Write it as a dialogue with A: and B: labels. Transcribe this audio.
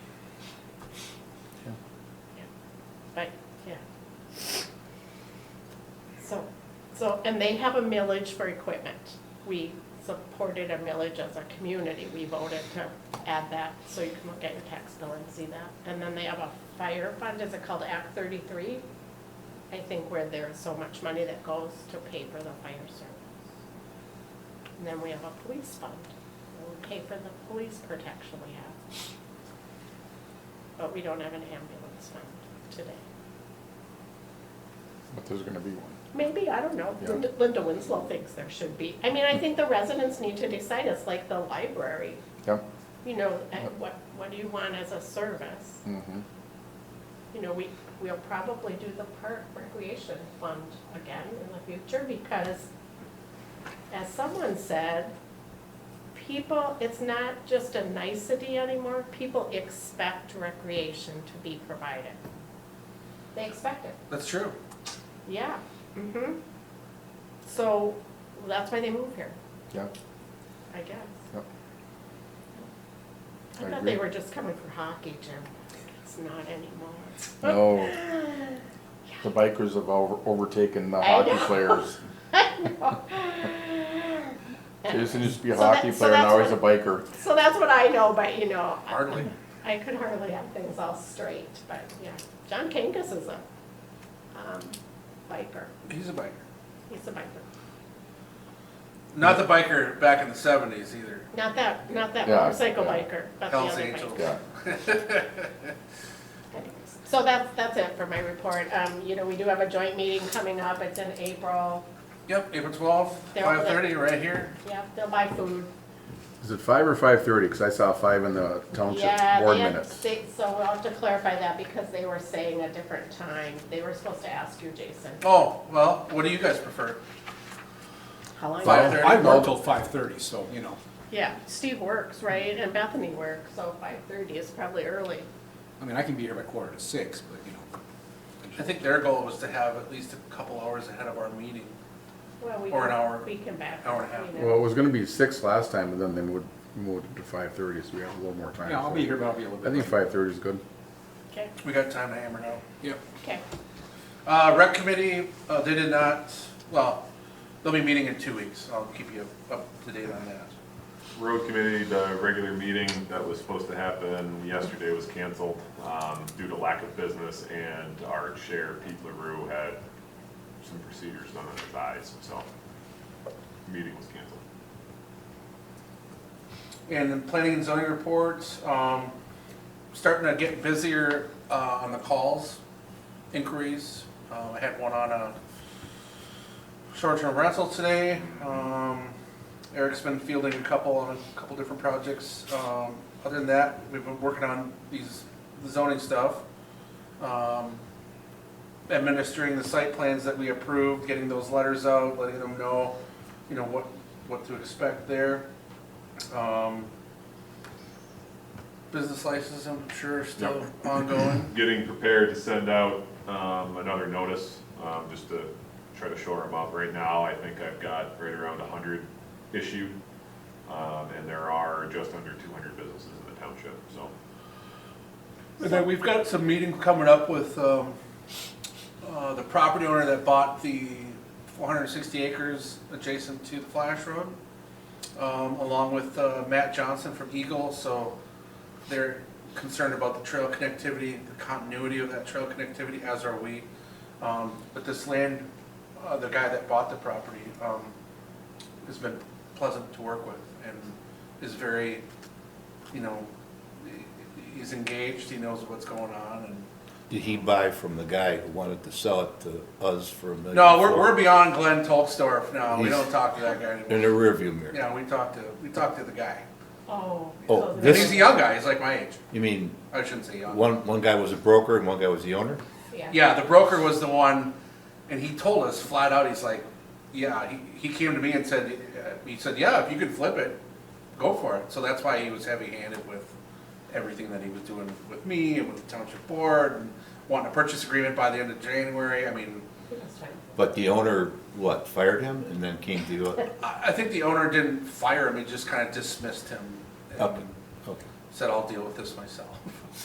A: Right, yeah. So, so, and they have a millage for equipment. We supported a millage as a community. We voted to add that, so you can look at your tax bill and see that. And then they have a fire fund, is it called Act thirty-three? I think where there's so much money that goes to pay for the fire service. And then we have a police fund, we pay for the police protection we have. But we don't have an ambulance fund today.
B: But there's gonna be one.
A: Maybe, I don't know.
B: Yeah.
A: Linda Linda Winslow thinks there should be. I mean, I think the residents need to decide. It's like the library.
B: Yep.
A: You know, and
B: Yep.
A: what, what do you want as a service?
B: Mm-hmm.
A: You know, we, we'll probably do the park recreation fund again in the future because as someone said, people, it's not just a nicety anymore. People expect recreation to be provided. They expect it.
C: That's true.
A: Yeah. Mm-hmm. So that's why they move here,
B: Yep.
A: I guess.
B: Yep.
A: I
B: I
A: thought they
B: agree.
A: were just coming for hockey, Jim. It's not anymore.
B: No, the bikers have over- overtaken the
A: I
B: hockey
A: know.
B: players.
A: I know.
B: Jason used to be a
A: So that-
B: hockey
A: so
B: player,
A: that's
B: now he's a
A: what-
B: biker.
A: So that's what I know, but you know. I-
C: Hardly.
A: I could hardly have things all straight, but yeah. John Kangas is a, um, biker.
C: He's a biker.
A: He's a biker.
C: Not the biker back in the seventies either.
A: Not that, not that
B: Yeah,
A: motorcycle
B: yeah.
A: biker, but the
C: Hell's
A: other biker.
C: Angels.
B: Yeah.
A: So that's, that's it for my report. Um, you know, we do have a joint meeting coming up. It's in April.
C: Yep, April twelfth,
A: They're-
C: five thirty, right here.
A: Yep, they'll buy food.
B: Is it five or five thirty? Cause I saw five in the
A: Yeah,
B: township
A: they
B: board
A: had-
B: minutes.
A: they- So we'll have to clarify that because they were saying a different time. They were supposed to ask you, Jason.
C: Oh, well, what do you guys prefer?
A: How long?
B: Five.
C: Five
D: I
C: thirty?
D: work till five thirty, so, you know,
A: Yeah, Steve works, right? And Bethany works, so five thirty is probably early.
D: I mean, I can be here by quarter to six, but, you know.
C: I think their goal was to have at least a couple hours ahead of our meeting.
A: Well, we
C: Or an
A: can-
C: hour.
A: We can back.
C: Hour and a half.
A: you know.
B: Well, it was gonna be six last time and then they moved, moved it to five thirty, so we have a little more time.
D: Yeah, I'll
B: so-
D: be here, but I'll be a little
B: I
D: bit.
B: think
D: late.
B: five thirty is good.
A: Okay,
C: We got time to hammer it out.
D: Yep.
A: okay.
C: Uh, rec committee, uh, they did not, well, they'll be meeting in two weeks. I'll keep you up to date on that.
E: Road committee, the regular meeting that was supposed to happen yesterday was canceled um, due to lack of business, and our chair, Pete LaRue, had some procedures done on his eyes, so meeting was canceled.
C: And then planning and zoning reports, um, starting to get busier, uh, on the calls, inquiries. Um, I had one on a short-term rental today. Um, Eric's been fielding a couple on a couple different projects. Um, other than that, we've been working on these zoning stuff. Um, administering the site plans that we approved, getting those letters out, letting them know, you know, what, what to expect there. Um, Business licenses, I'm sure, are still ongoing.
E: Getting prepared to send out um, another notice, um, just to try to shore them up. Right now, I think I've got right around 100 issued, um, and there are just under 200 businesses in the township, so
C: And then we've got some meetings coming up with um, uh, the property owner that bought the 460 acres adjacent to the Flash Road, um, along with uh, Matt Johnson from Eagle, so they're concerned about the trail connectivity, the continuity of that trail connectivity, as are we. Um, But this land, uh, the guy that bought the property um, has been pleasant to work with and is very, you know, he- he's engaged, he knows what's going on, and,
F: Did he buy from the guy who wanted to sell it to us for a million?
C: no, we're,
F: four?
C: we're beyond Glenn Tolstorf now, we
F: He's-
C: don't talk to that guy
F: In
C: anymore.
F: the rearview mirror.
C: Yeah, we talked to, we talked to the guy,
A: Oh.
F: Oh,
A: so
C: And
F: This-
C: he's a young guy, he's like my age,
F: You mean,
C: I shouldn't say young.
F: one, one guy was a broker and one guy was the owner?
C: Yeah, the broker was the one, and he told us flat out, he's like, yeah, he, he came to me and said, uh, he said, yeah, if you could flip it, go for it. So that's why he was heavy-handed with everything that he was doing with me and with the township board, and wanting a purchase agreement by the end of January, I mean,
A: That's fine.
F: But the owner, what, fired him and then came to you? up-
C: I, I think the owner didn't fire him, he just kinda dismissed him. and
F: Up, okay.
C: Said, I'll deal with this myself.